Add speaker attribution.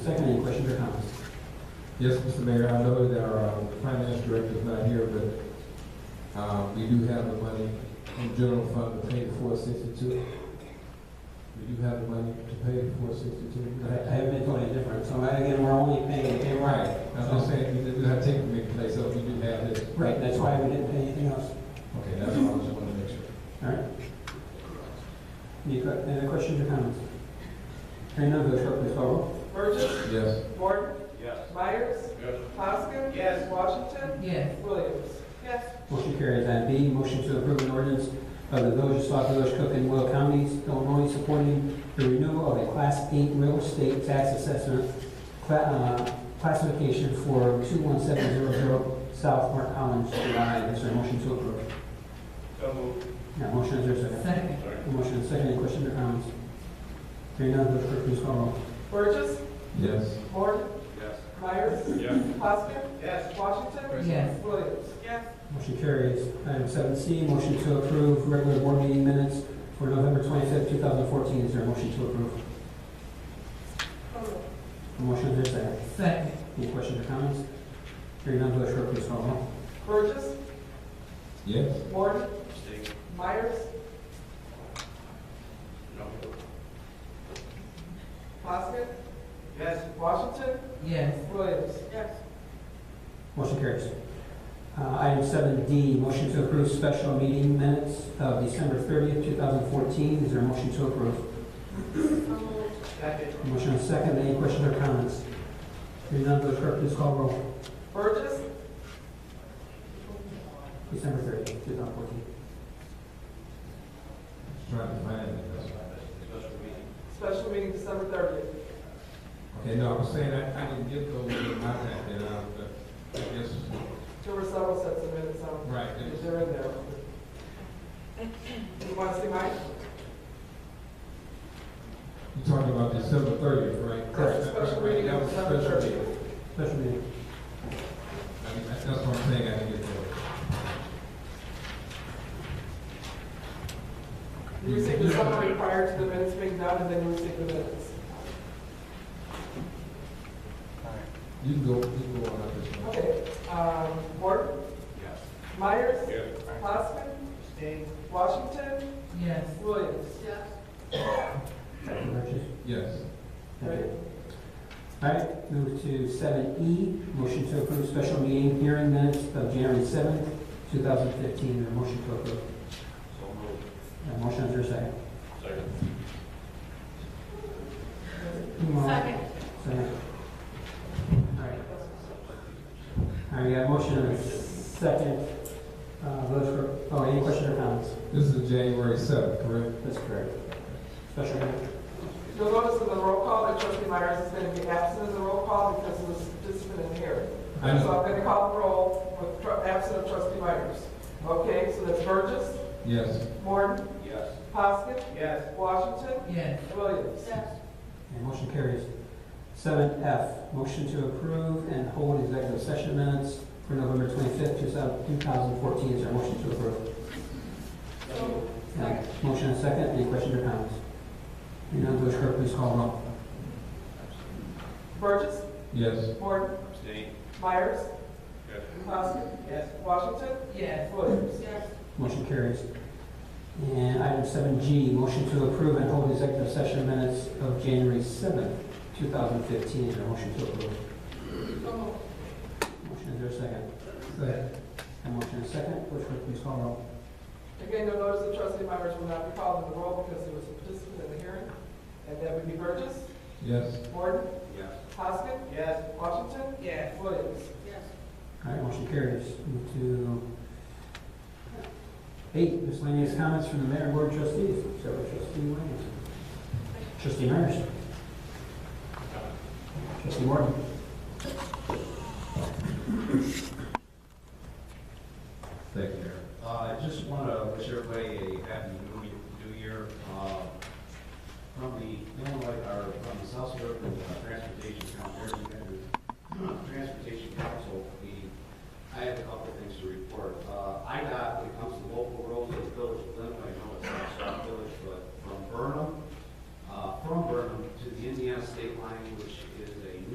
Speaker 1: Second, any questions or comments?
Speaker 2: Yes, Mr. Mayor, I know that our uh, finance director is not here, but uh, we do have the money in general fund to pay the four sixty-two. We do have the money to pay the four sixty-two.
Speaker 1: I haven't been told any different, so I- again, we're only paying, pay right.
Speaker 2: That's what I'm saying, we do have take from big place, so we do have this.
Speaker 1: Right, that's why we didn't pay anything else,
Speaker 2: Okay, that's all, I just wanted to make sure.
Speaker 1: all right? Any que- any questions or comments? Hearing none, Village Clerk, please call roll.
Speaker 3: Burgess.
Speaker 2: Yes.
Speaker 3: Morton.
Speaker 4: Yes.
Speaker 3: Myers.
Speaker 4: Yes.
Speaker 3: Poskett.
Speaker 4: Yes.
Speaker 3: Washington.
Speaker 5: Yes,
Speaker 3: Williams. Yes.
Speaker 1: Motion carries. Item B, motion to approve an ordinance of the Village of South Village, Cook and Will Counties, Illinois, supporting the renewal of a Class 8 real estate tax assessment cla- uh, classification for 21700 South Mark Collins, July. Is there a motion to approve?
Speaker 4: So moved.
Speaker 1: Now, motion is there a second?
Speaker 5: second.
Speaker 4: Sorry.
Speaker 1: Motion is second. Any questions or comments? Hearing none, Village Clerk, please call roll.
Speaker 3: Burgess.
Speaker 2: Yes.
Speaker 3: Morton.
Speaker 4: Yes.
Speaker 3: Myers.
Speaker 4: Yes.
Speaker 3: Poskett.
Speaker 4: Yes.
Speaker 3: Washington.
Speaker 5: Yes,
Speaker 3: Williams. Yes.
Speaker 1: Motion carries. Item seven C, motion to approve regular board meeting minutes for November 25th, 2014. Is there a motion to approve? Motion is there a second?
Speaker 5: second.
Speaker 1: Any questions or comments? Hearing none, Village Clerk, please call the roll.
Speaker 3: Burgess.
Speaker 2: Yes.
Speaker 3: Morton. Myers.
Speaker 4: No.
Speaker 3: Poskett.
Speaker 4: Yes.
Speaker 3: Washington.
Speaker 5: Yes,
Speaker 3: Williams. Yes.
Speaker 1: Motion carries. Uh, Item seven D, motion to approve special meeting minutes of December 30th, 2014. Is there a motion to approve?
Speaker 4: Second.
Speaker 1: Motion is second, any questions or comments? Hearing none, Village Clerk, please call the roll.
Speaker 3: Burgess.
Speaker 1: December 30th, 2014.
Speaker 2: Trying to find it, that's right.
Speaker 4: Special meeting.
Speaker 3: Special meeting December thirtieth.
Speaker 2: Okay, no, I was saying, I, I didn't get those in my packet, uh, but I guess,
Speaker 3: There were several sets of minutes on.
Speaker 2: right, it was-
Speaker 3: They're in there. You want to see mine?
Speaker 2: you're talking about December thirtieth, right?
Speaker 3: That's a Special meeting
Speaker 2: That
Speaker 3: on
Speaker 2: was a
Speaker 3: December
Speaker 2: special meeting.
Speaker 3: thirtieth.
Speaker 1: Special meeting.
Speaker 2: I mean, that's what I'm saying, I didn't get those.
Speaker 3: You received the summary prior to the minutes being done, and then you received the minutes.
Speaker 2: You can go, you can go on up this one.
Speaker 3: Okay, um, Morton,
Speaker 4: Yes.
Speaker 3: Myers,
Speaker 4: Yes.
Speaker 3: Glassman,
Speaker 4: Abstain.
Speaker 3: Washington,
Speaker 5: yes,
Speaker 3: Williams. Yes.
Speaker 1: Village-
Speaker 2: Yes.
Speaker 3: Right.
Speaker 1: All right, move to seven E, motion to approve special meeting hearing minutes of January 7th, 2015. Is there a motion to approve?
Speaker 4: So moved.
Speaker 1: Uh, Motion is there a second?
Speaker 4: Second.
Speaker 1: Second. Second. All right. All right, we got a motion and a second. Uh, Village clerk, oh, any questions or comments?
Speaker 2: This is January seventh, correct?
Speaker 1: That's correct. Special meeting.
Speaker 3: You'll notice in the roll call that trustee Myers is going to be absent in the roll call because he was participant in here. So
Speaker 2: I
Speaker 3: I'm
Speaker 2: know.
Speaker 3: going to call the roll with tr- absent of trustee Myers. Okay, so that's Burgess,
Speaker 2: Yes.
Speaker 3: Morton,
Speaker 4: Yes.
Speaker 3: Poskett,
Speaker 4: Yes.
Speaker 3: Washington,
Speaker 5: yes,
Speaker 3: Williams. Yes.
Speaker 1: And motion carries. Seven F, motion to approve and hold executive session minutes for November twenty-fifth, two thousand fourteen. Is there a motion to approve? Uh, Motion and second, any questions or comments? Hearing none, Village Clerk, please call the roll.
Speaker 3: Burgess,
Speaker 2: Yes.
Speaker 3: Morton,
Speaker 4: Abstain.
Speaker 3: Myers,
Speaker 4: Yes.
Speaker 3: Poskett,
Speaker 4: Yes.
Speaker 3: Washington,
Speaker 5: yes,
Speaker 3: Williams. Yes.
Speaker 1: Motion carries. And item seven G, motion to approve and hold executive session minutes of January seventh, two thousand fifteen. Is there a motion to approve? Motion, is there a second?
Speaker 2: Second.
Speaker 1: And motion and second, Village Clerk, please call the roll.
Speaker 3: Again, you'll notice that trustee Myers will not be called in the roll because he was a participant in the hearing. And that would be Burgess,
Speaker 2: Yes.
Speaker 3: Morton,
Speaker 4: Yes.
Speaker 3: Hoskins,
Speaker 4: Yes.
Speaker 3: Washington,
Speaker 5: yes,
Speaker 3: Williams.
Speaker 1: All right, motion carries. Move to eight, miscellaneous comments from the mayor and board of trustees. So trustee Williams. Trustee Myers. Trustee Morton.